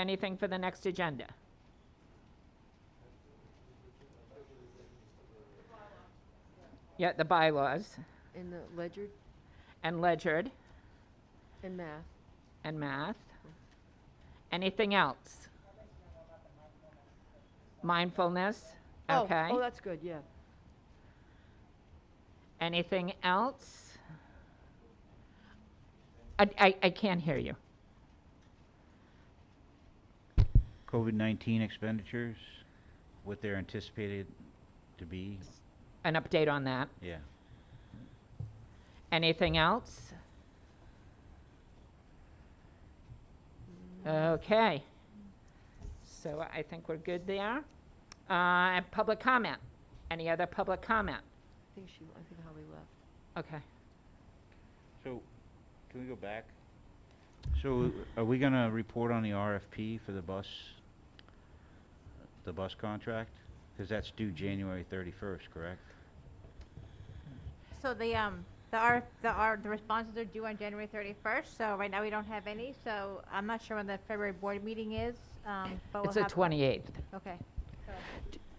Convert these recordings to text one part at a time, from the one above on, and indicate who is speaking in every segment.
Speaker 1: Anything for the next agenda? Yeah, the bylaws
Speaker 2: in the ledger
Speaker 1: and ledgered
Speaker 2: and math.
Speaker 1: and math. Anything else? Mindfulness,
Speaker 2: Oh,
Speaker 1: okay.
Speaker 2: Oh, that's good, yeah.
Speaker 1: Anything else? I, I, I can't hear you.
Speaker 3: COVID-19 expenditures, what they're anticipated to be,
Speaker 1: An update on that.
Speaker 3: yeah.
Speaker 1: Anything else? Okay. So I think we're good there. Uh, and public comment. Any other public comment?
Speaker 2: I think she, I think Holly left.
Speaker 1: Okay.
Speaker 3: So, can we go back? So, are we gonna report on the RFP for the bus, the bus contract? Because that's due January 31st, correct?
Speaker 4: So the, um, the R, the R, the responses are due on January thirty-first, so right now we don't have any, so I'm not sure when the February board meeting is, um, but we'll
Speaker 1: It's
Speaker 4: have.
Speaker 1: the 28th.
Speaker 4: Okay.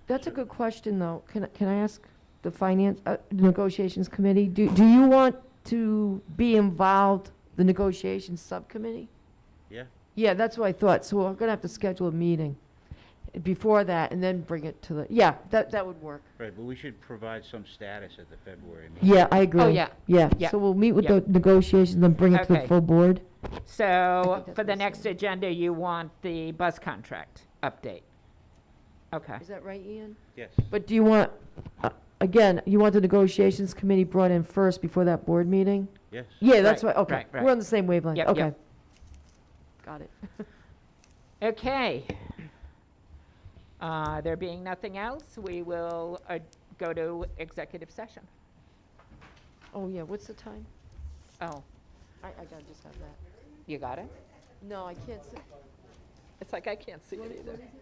Speaker 2: That's a good question, though. Can, I- can I ask the finance, uh, negotiations committee, do, do you want to be involved, the negotiations subcommittee?
Speaker 3: Yeah.
Speaker 2: Yeah, that's what I thought, so we're gonna have to schedule a meeting before that and then bring it to the, yeah, that, that would work.
Speaker 3: Right, but we should provide some status at the February meeting.
Speaker 2: Oh, Yeah, I agree.
Speaker 1: yeah. Yeah.
Speaker 2: Yeah, so we'll meet with
Speaker 1: Yeah.
Speaker 2: the negotiations and then bring it to the
Speaker 1: Okay.
Speaker 2: full board.
Speaker 1: So
Speaker 2: that's
Speaker 1: for the
Speaker 2: what I
Speaker 1: next
Speaker 2: said.
Speaker 1: agenda, you want the bus contract update? Okay.
Speaker 2: Is that right, Ian?
Speaker 3: Yes.
Speaker 2: But do you want, uh, again, you want the negotiations committee brought in first before that board meeting?
Speaker 3: Yes.
Speaker 2: Yeah, that's
Speaker 1: Right,
Speaker 2: right, okay.
Speaker 1: right, right.
Speaker 2: We're on the same wavelength,
Speaker 1: Yep, yep.
Speaker 2: okay. Got it.
Speaker 1: Okay. Uh, There being nothing else, we will uh, go to executive session.
Speaker 2: Oh, yeah, what's the time?
Speaker 1: Oh,
Speaker 2: I, I gotta just have that.
Speaker 1: you got it?
Speaker 2: No, I can't, s-
Speaker 1: It's like I can't see it either.